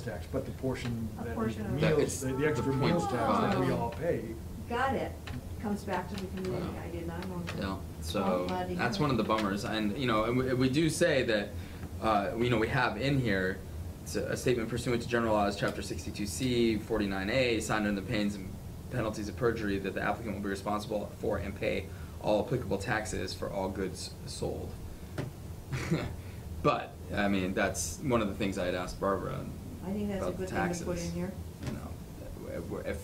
tax, but the portion A that portion of it. Oh. That meals, is the the extra the point. meals tax that we all pay. Got it. Comes back to the community. Yeah. I did not know that. Yeah, I'm so glad you that's know. one of the bummers, and, you know, and we, we do say that, uh, you know, we have in here, it's a a statement pursuant to general laws, chapter sixty-two C, forty-nine A, signed under the pains and penalties of perjury, that the applicant will be responsible for and pay all applicable taxes for all goods sold. But, I mean, that's one of the things I had asked Barbara I think that's a about the good thing to put taxes, in here. You know, that we're- if,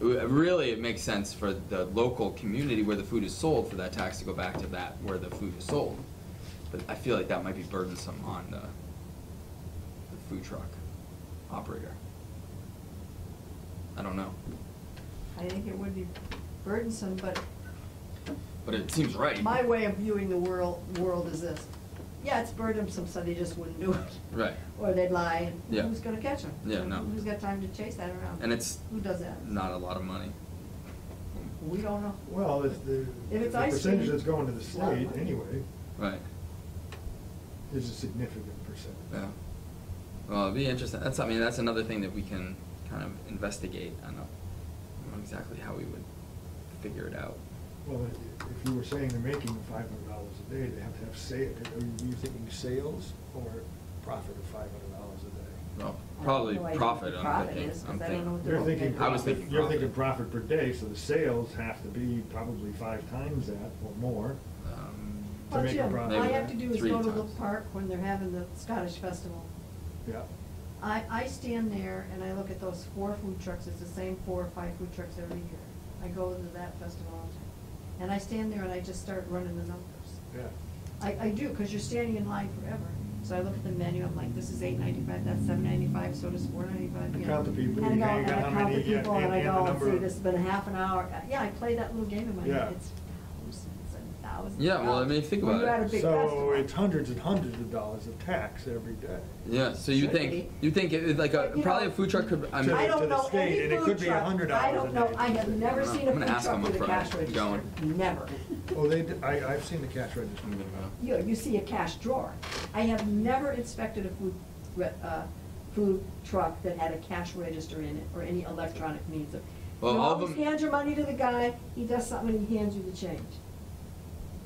w- really, it makes sense for the local community where the food is sold, for that tax to go back to that where the food is sold. But I feel like that might be burdensome on the, the food truck operator. I don't know, I think it would be burdensome, but but it seems right. my way of viewing the world, world is this. Yeah, it's burdensome, so they just wouldn't do it. Right. Or they'd lie. and Yeah. Who's gonna catch them? Yeah, no. Who's got time to chase that around? And it's Who does that? Not a lot of money. We don't know. Well, if the, If the it's ice percentage cream, that's going to the it's not state money. anyway Right, is a significant percentage. yeah. Well, it'd be interesting, that's, I mean, that's another thing that we can kind of investigate, I don't know I don't know exactly how we would figure it out. Well, i- if you were saying they're making five hundred dollars a day, they have to have sa, are you thinking sales or profit of five hundred dollars a day? Well, I have probably no idea what profit, the I'm profit thinking, is, 'cause I'm I don't know what thinking. the You're thinking. I was profit- thinking You're profit. thinking profit per day, so the sales have to be probably five times that or more. Um, To Well, make a Jim, all profit. I have to do is Three go to times. Look Park when they're having the Scottish Festival. Yeah. I, I stand there and I look at those four food trucks, it's the same four or five food trucks every year. I go to that festival all the time. And I stand there and I just start running the numbers. Yeah. I, I do, because you're standing in line forever. So I look at the menu, I'm like, this is eight ninety-five, that's seven ninety-five, so does four ninety-five. You count the people, And you I count go, and I how count the many, yeah, people, and and- I and the go, and number see, of- this has been a half an hour. Uh, Yeah, I play that little game in my head. Yeah. It's thousands and thousands. Yeah, well, I mean, think When about you're it. at a big So festival. it's hundreds and hundreds of dollars of tax every day. Yeah, so you Should think, be. you think it- like a, But, you probably a know, food truck could, I mean. I to don't the know state, any and it could food be truck. $100 I a don't know, day. I have never I'm seen a gonna food ask truck them with a upfront. cash Keep register. going. Never. Oh, they, d- I, I've seen the cash register. I'm gonna go. You, you see a cash drawer. I have never inspected a food, re- uh, food truck that had a cash register in it or any electronic means of. You Well, all of always them- hand your money to the guy, he does something and he hands you the change.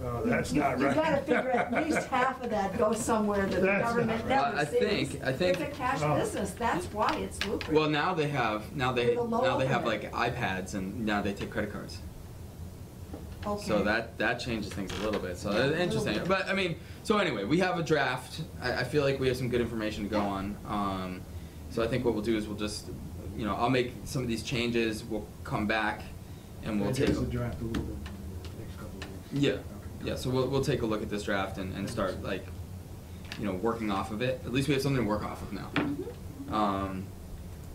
Oh, that's You- not you- right. You gotta figure at least half of that goes somewhere that the That's not government right. Well, I never sees. think- I think- It's a cash Oh. business, that's why it's lucrative. Well, now they have, now they, With a low now they have like overhead. iPads and now they take credit cards. So Okay. that, that changes things a little bit, so Yeah, a that's little interesting, bit. but, I mean, so anyway, we have a draft, I, I feel like we have some good information to go on, um, so I think what we'll do is we'll just, you know, I'll make some of these changes, we'll come back, and we'll take. Change the draft a little bit in the next couple of weeks. Yeah, Okay. yeah, so we'll, we'll take a look at this draft and, and start like, you know, working off of it, at least we have something to work off of now. Mm-hmm. Um,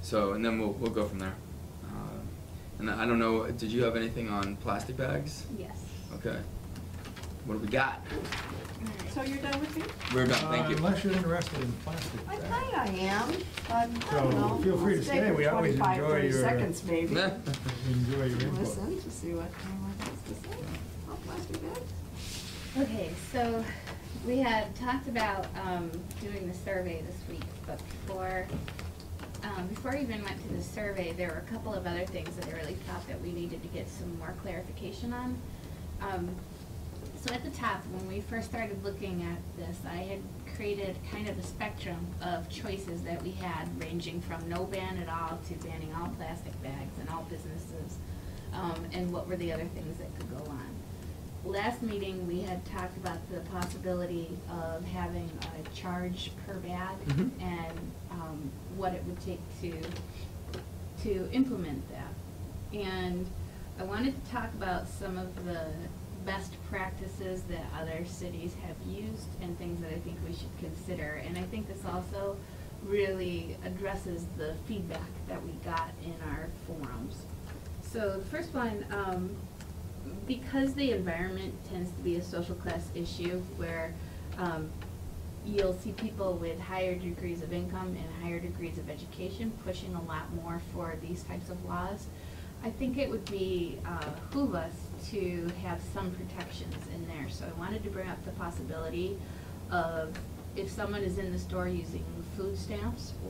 so, and then we'll, we'll go from there. Um, And I don't know, did you have anything on plastic bags? Yes. Okay, what do we got? So you're done with me? We're done, thank Uh, you. Unless you're interested in plastic I bags. think I am, but I So, don't know. feel free to Let's stay. take We always 25, enjoy 30 your- seconds maybe. Nah. Enjoy your input. Listen to see what anyone has to say. Oh, How plastic bags? Okay, so we had talked about um, doing the survey this week, but before, um, before I even went to the survey, there were a couple of other things that I really thought that we needed to get some more clarification on. Um, So at the top, when we first started looking at this, I had created kind of a spectrum of choices that we had, ranging from no ban at all to banning all plastic bags and all businesses, um, and what were the other things that could go on. Last meeting, we had talked about the possibility of having a charge per bag Mhm. and um, what it would take to to implement that. And I wanted to talk about some of the best practices that other cities have used and things that I think we should consider. And I think this also really addresses the feedback that we got in our forums. So the first one, um, because the environment tends to be a social class issue where um, you'll see people with higher degrees of income and higher degrees of education pushing a lot more for these types of laws. I think it would be uh, behoove us to have some protections in there. So I wanted to bring up the possibility of if someone is in the store using food stamps